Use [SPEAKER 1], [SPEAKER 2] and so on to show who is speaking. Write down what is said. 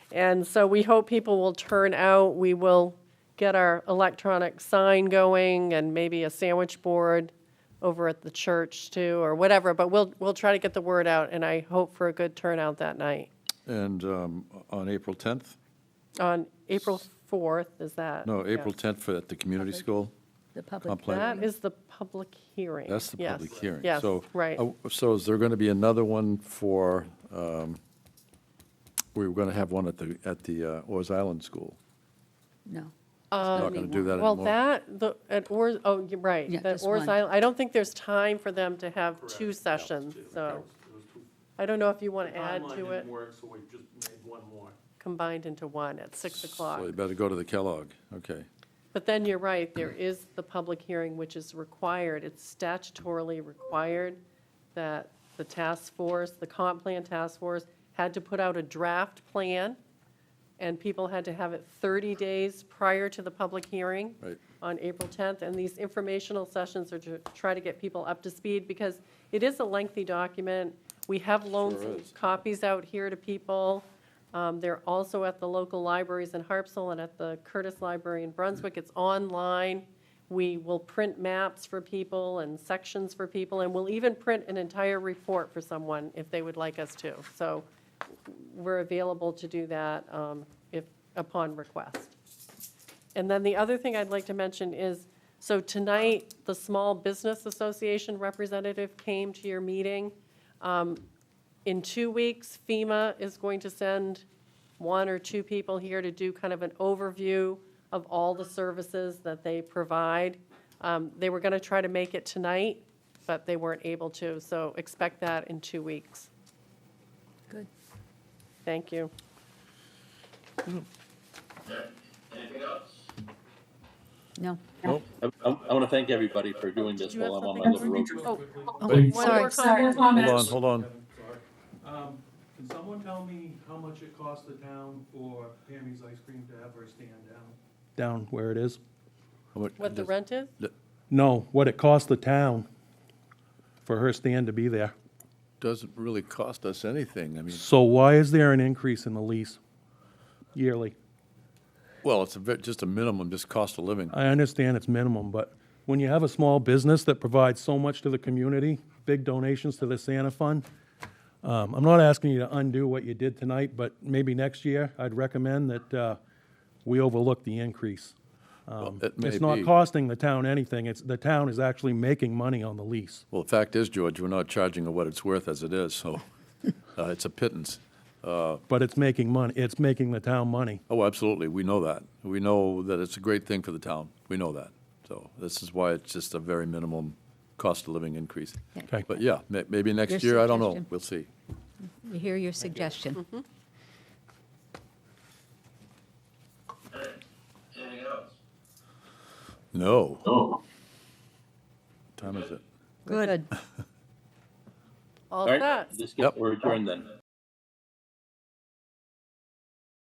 [SPEAKER 1] And so we hope people will turn out. We will get our electronic sign going and maybe a sandwich board over at the church too, or whatever. But we'll, we'll try to get the word out, and I hope for a good turnout that night.
[SPEAKER 2] And um, on April 10th?
[SPEAKER 1] On April 4th, is that?
[SPEAKER 2] No,
[SPEAKER 1] Yeah.
[SPEAKER 2] April 10th for, at the community school.
[SPEAKER 3] The
[SPEAKER 2] comp
[SPEAKER 3] public.
[SPEAKER 2] plan.
[SPEAKER 1] That is the public hearing.
[SPEAKER 2] That's the
[SPEAKER 1] Yes,
[SPEAKER 2] public hearing.
[SPEAKER 1] Yes,
[SPEAKER 2] So,
[SPEAKER 1] right.
[SPEAKER 2] uh, So is there going to be another one for, um, we were going to have one at the, at the uh, Oars Island School?
[SPEAKER 3] No.
[SPEAKER 2] Not going to do that
[SPEAKER 1] Um, Well,
[SPEAKER 2] anymore?
[SPEAKER 1] that, the, at Oars, oh, you're right.
[SPEAKER 3] Yeah,
[SPEAKER 1] that
[SPEAKER 3] just
[SPEAKER 1] Oars
[SPEAKER 3] one.
[SPEAKER 1] Island- I don't think there's time for them to have two sessions, so I don't know if you want to add
[SPEAKER 4] Timeline
[SPEAKER 1] to
[SPEAKER 4] didn't
[SPEAKER 1] it,
[SPEAKER 4] work, so we just made one more.
[SPEAKER 1] combined into one at 6 o'clock.
[SPEAKER 2] So you better go to the Kellogg, okay.
[SPEAKER 1] But then you're right, there is the public hearing, which is required, it's statutorily required that the task force, the comp plan task force, had to put out a draft plan, and people had to have it 30 days prior to the public hearing
[SPEAKER 2] Right.
[SPEAKER 1] on April 10th. And these informational sessions are to try to get people up to speed, because it is a lengthy document. We have
[SPEAKER 2] Sure
[SPEAKER 1] loaned
[SPEAKER 2] is.
[SPEAKER 1] copies out here to people. Um, They're also at the local libraries in Harpswell and at the Curtis Library in Brunswick. It's online. We will print maps for people and sections for people, and we'll even print an entire report for someone if they would like us to. So we're available to do that um, if, upon request. And then the other thing I'd like to mention is, so tonight, the Small Business Association representative came to your meeting. Um, In two weeks, FEMA is going to send one or two people here to do kind of an overview of all the services that they provide. Um, They were going to try to make it tonight, but they weren't able to, so expect that in two weeks.
[SPEAKER 3] Good.
[SPEAKER 1] Thank you.
[SPEAKER 3] No.
[SPEAKER 2] Nope.
[SPEAKER 5] I, I want to thank everybody for doing this
[SPEAKER 1] Do you have
[SPEAKER 5] while I'm on my
[SPEAKER 1] something
[SPEAKER 5] little road trip.
[SPEAKER 1] Oh,
[SPEAKER 2] Wait.
[SPEAKER 1] one more comment.
[SPEAKER 2] Hold on, hold on.
[SPEAKER 4] Um, Can someone tell me how much it cost the town for Pammy's Ice Cream to have her stand down? Down where it is?
[SPEAKER 2] How much-
[SPEAKER 1] What the rent is?
[SPEAKER 4] No, what it cost the town for her stand to be there.
[SPEAKER 2] Doesn't really cost us anything, I mean,
[SPEAKER 4] So why is there an increase in the lease yearly?
[SPEAKER 2] well, it's a bit, just a minimum, just cost of living.
[SPEAKER 4] I understand it's minimum, but when you have a small business that provides so much to the community, big donations to the Santa Fund, um, I'm not asking you to undo what you did tonight, but maybe next year, I'd recommend that, uh, we overlook the increase.
[SPEAKER 2] Well, it may
[SPEAKER 4] Um, It's not
[SPEAKER 2] be.
[SPEAKER 4] costing the town anything, it's, the town is actually making money on the lease.
[SPEAKER 2] Well, the fact is, George, we're not charging her what it's worth as it is, so uh, it's a pittance.
[SPEAKER 4] But it's making money, it's making the town money.
[SPEAKER 2] Oh, absolutely, we know that. We know that it's a great thing for the town, we know that. So this is why it's just a very minimum cost of living increase.
[SPEAKER 4] Okay.
[SPEAKER 2] But yeah, ma- maybe next
[SPEAKER 3] Your
[SPEAKER 2] year, I don't know,
[SPEAKER 3] suggestion.
[SPEAKER 2] we'll see.
[SPEAKER 3] We hear your suggestion.
[SPEAKER 1] Mm-hmm.
[SPEAKER 2] No. Oh. Time is it?
[SPEAKER 3] Good.
[SPEAKER 1] All
[SPEAKER 5] All right,
[SPEAKER 1] set.
[SPEAKER 5] just
[SPEAKER 2] Yep.
[SPEAKER 5] get, we're adjourned then.